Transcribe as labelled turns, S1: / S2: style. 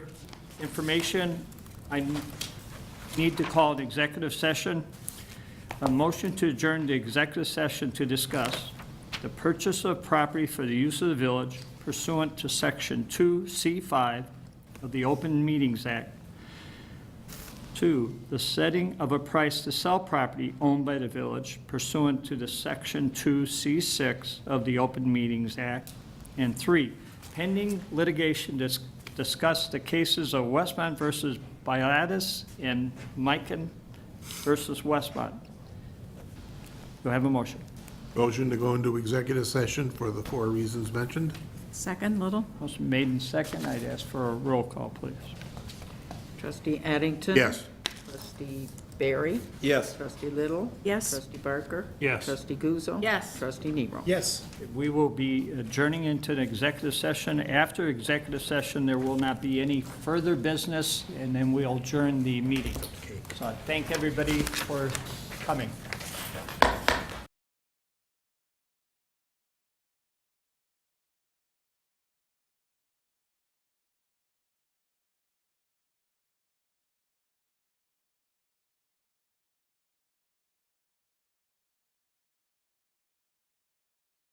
S1: information, I need to call an executive session. A motion to adjourn the executive session to discuss the purchase of property for the use of the village pursuant to Section 2C5 of the Open Meetings Act. Two, the setting of a price to sell property owned by the village pursuant to the Section 2C6 of the Open Meetings Act. And three, pending litigation, dis- discuss the cases of Westmont versus Biatis and Mikan versus Westmont. Do I have a motion?
S2: Motion to go into executive session for the four reasons mentioned?
S3: Second, Little?
S1: Motion made in second. I'd ask for a roll call, please.
S4: Trustee Addington?
S2: Yes.
S4: Trustee Barry?
S5: Yes.
S4: Trustee Little?
S3: Yes.
S4: Trustee Barker?
S1: Yes.
S4: Trustee Guzzo?
S3: Yes.
S4: Trustee Nero?
S5: Yes.
S1: We will be adjourning into an executive session. After executive session, there will not be any further business, and then we'll adjourn the meeting. So I thank everybody for coming.